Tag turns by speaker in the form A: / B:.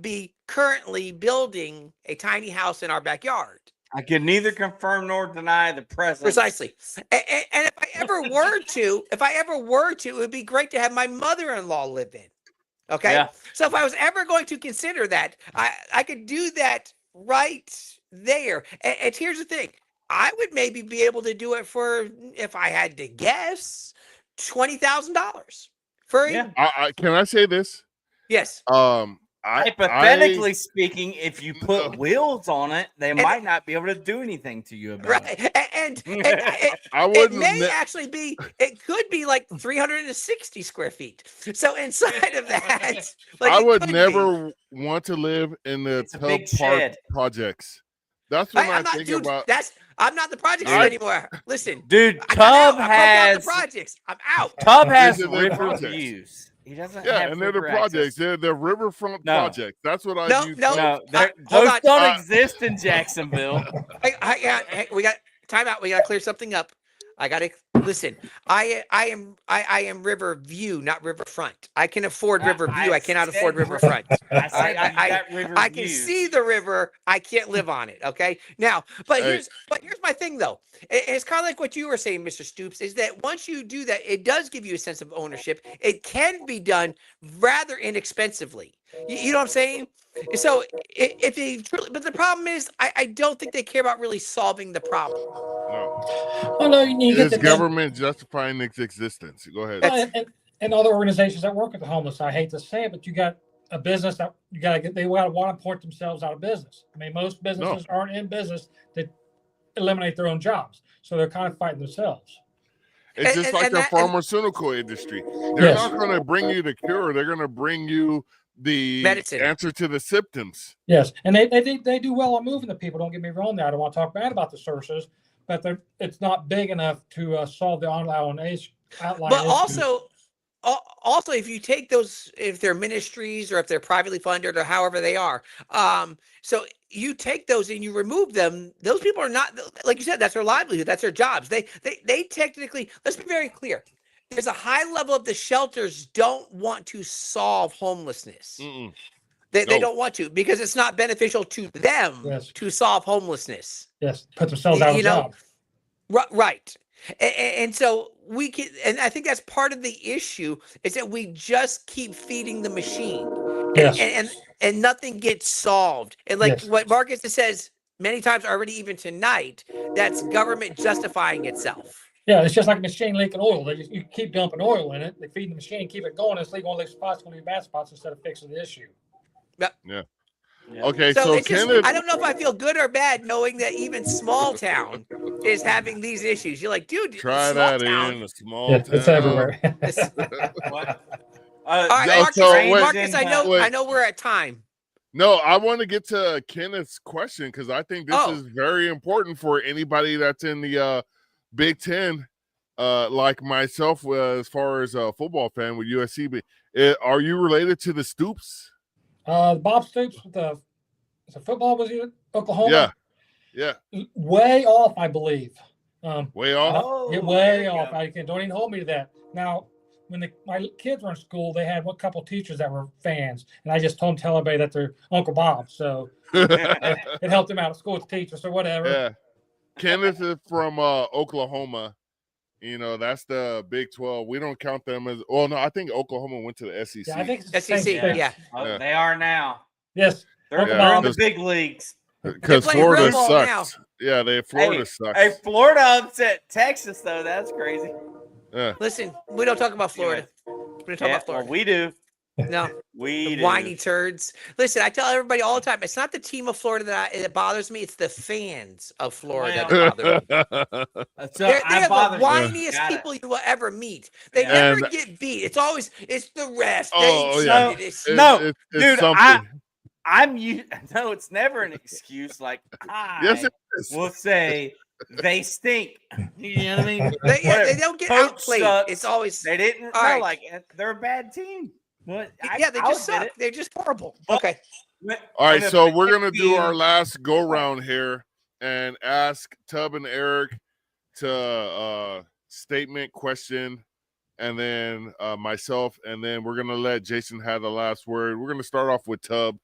A: be currently building a tiny house in our backyard.
B: I can neither confirm nor deny the presence.
A: Precisely. And, and if I ever were to, if I ever were to, it would be great to have my mother-in-law live in. Okay.
B: Yeah.
A: So if I was ever going to consider that, I, I could do that right there. And, and here's the thing. I would maybe be able to do it for, if I had to guess, $20,000 for, a-
B: Yeah.
C: I, I can I say this?
A: yes.
C: Um, I
B: Hypothetically
C: I-
B: speaking, if you
C: No.
B: put wheels on it, they might not be able to do anything to you about
A: Right.
B: it.
A: A- And, and, and
C: I,
A: it
C: wouldn't.
A: may
C: ne-
A: actually be it could be like 360 square feet so inside of that like
C: I
A: it
C: would
A: could be.
C: never want to live in the
B: It's a
C: tub
B: big
C: park
B: shed.
C: projects. That's what
A: I,
C: I,
A: am not
C: think
A: dude,
C: about.
A: that's i'm not the projects
C: I-
A: anymore listen
B: Dude,
A: I got out. I broke
B: Tub
A: out the
B: has
A: projects i'm out
B: Tub has
C: are the
B: river
C: projects.
B: views. He doesn't
C: yeah,
B: have
C: and they're the
B: river access.
C: projects. They're the riverfront
B: No.
C: projects. That's what I
A: No,
C: use.
A: no.
B: No,
A: I-
B: they're-
A: hold
B: those
A: on.
B: don't
C: Uh,
B: exist in Jacksonville.
A: I, I, got- hey, we got time out we gotta clear something up i gotta listen i i am i i am river view not riverfront i can afford
B: I-
A: river view
B: I
A: i cannot
B: said
A: afford
B: river-
A: riverfront
B: I, said
A: I-
B: you
A: I-
B: got river
A: I can
B: views.
A: see the river. I can't live on it. Okay. Now, but
C: Hey.
A: here's but here's my thing though. I- It's kind of like what you were saying, Mr. Stoops, is that once you do that, it does give you a sense of ownership. It can be done rather inexpensively. You, you know what I'm saying? So i- if they truly, but the problem is, I, I don't think they care about really solving the problem.
C: No.
D: Well, no, you, you
C: It
D: get
C: is
D: the government
C: government justifying its existence. Go ahead.
D: and, and, and other organizations that work with the homeless. I hate to say it, but you got a business that you got to get. They gotta want to port themselves out of business. I mean, most businesses aren't in business to eliminate their own jobs, so they're kind of fighting themselves.
C: It's
A: And-
C: just
A: and-
C: like
A: and
C: the
A: that- and-
C: pharmaceutical industry. They're
D: Yes.
C: not going to bring you the cure. They're going to bring you the
A: Medicine.
C: answer to the symptoms.
D: Yes, and they they, they, they do well on moving the people. Don't get me wrong. There, I don't want to talk bad about the services, but they're it's not big enough to uh, solve the online age. outlying
A: but
D: issues.
A: also al- also if you take those if they're ministries or if they're privately funded or however they are um so you take those and you remove them those people are not th- like you said that's their livelihood that's their jobs they they they technically let's be very clear there's a high level of the shelters don't want to solve homelessness
C: Mm-mm.
A: they, they
C: Mm. no.
A: don't want to because it's not beneficial to them
D: Yes.
A: to solve homelessness
D: yes, put themselves out of
A: You know,
D: job.
A: Ri- Right. A- a- And, so we can, and I think that's part of the issue is that we just keep feeding the machine
D: Yes,
A: and, and, and nothing gets solved. And like
D: Yes.
A: what Marcus says many times already, even tonight, that's government justifying itself.
D: Yeah, it's just like a machine leaking oil. They just, you keep dumping oil in it, they feed the machine, keep it going. It's leaking all these spots, going to be bad spots instead of fixing the issue.
B: Yeah.
C: Okay,
A: So,
C: so,
A: it's just,
C: Kenneth,
A: I don't know if I feel good or bad knowing that even small town is having these issues. You're like, dude,
C: try
A: small
C: that in
A: town.
C: a small
D: Yes, it's
C: town.
D: everywhere.
A: this-
B: What? Uh,
A: All right,
C: Yeah,
A: Marcus,
C: so wait-
A: Marcus, I know,
C: wait.
A: I know we're at time.
C: No, I want to get to Kenneth's question because I think this
A: Oh.
C: is very important for anybody that's in the uh, Big Ten, uh, like myself, uh, as far as a football fan with USC. But uh, are you related to the Stoops?
D: uh, Bob Stoops with the, the football was he in
C: Yeah,
D: Oklahoma?
C: yeah,
D: Way off, I believe. Um,
C: way off.
B: Oh,
D: get
B: there
D: way
B: you
D: off.
B: go.
D: I can, don't even hold me to that. Now, when the, my kids were in school, they had a couple teachers that were fans, and I just told them, tell everybody that they're Uncle Bob. So
C: yeah.
D: it helped them out at school with teachers or whatever.
C: Kenneth is from uh, Oklahoma. You know, that's the Big 12. We don't count them as, well, no, I think Oklahoma went to the E SEC.
D: Yeah, I think it's the same
A: SEC,
D: thing.
A: E yeah.
B: Oh,
C: Yeah.
B: They are now.
D: Yes.
B: They're,
D: Yeah.
B: they're in the
C: Just-
B: big leagues.
C: Because
A: playing
C: Florida
A: real ball now.
C: sucks. Yeah, they Florida sucks.
B: Hey, Florida upset Texas though. That's crazy.
C: yeah.
A: Listen, we don't talk about Florida. We don't talk
B: Yeah,
A: about Florida.
B: well, we do.
A: no,
B: We
A: the
B: do.
A: whiny turds. Listen, I tell everybody all the time, it's not the team of Florida that, I, that bothers me. It's the fans of Florida
B: Well,
A: that bother me.
B: Uh, So
A: They're,
B: I
A: they're the
B: bothered you.
A: whiniest
B: Got it.
A: people you will ever meet. They
B: Yeah.
A: never
C: And-
A: get beat. It's always it's the ref.
C: Oh,
A: they
C: yeah.
A: cheated, it's-
C: It's-
B: No,
C: it's- it's
B: dude,
C: something.
B: I- I'm you. No, it's never an excuse. Like I
C: yes, it is.
B: will say they stink. You know what I mean?
A: They, yeah, they
B: Whatever.
A: don't get
B: Coach
A: outplayed.
B: sucks.
A: It's always
B: They didn't.
A: All
B: no,
A: right.
B: like eh, they're a bad team. What? I-
A: yeah, they
B: I
A: just
B: would get
A: suck.
B: it.
A: They're just horrible.
B: Well,
A: Okay.
B: When-
C: All
B: when
C: right,
B: a
C: so we're
B: big
C: gonna do our
B: team-
C: last go round here and ask Tub and Eric to uh statement question, and then uh myself, and then we're gonna let Jason have the last word. We're gonna start off with Tub.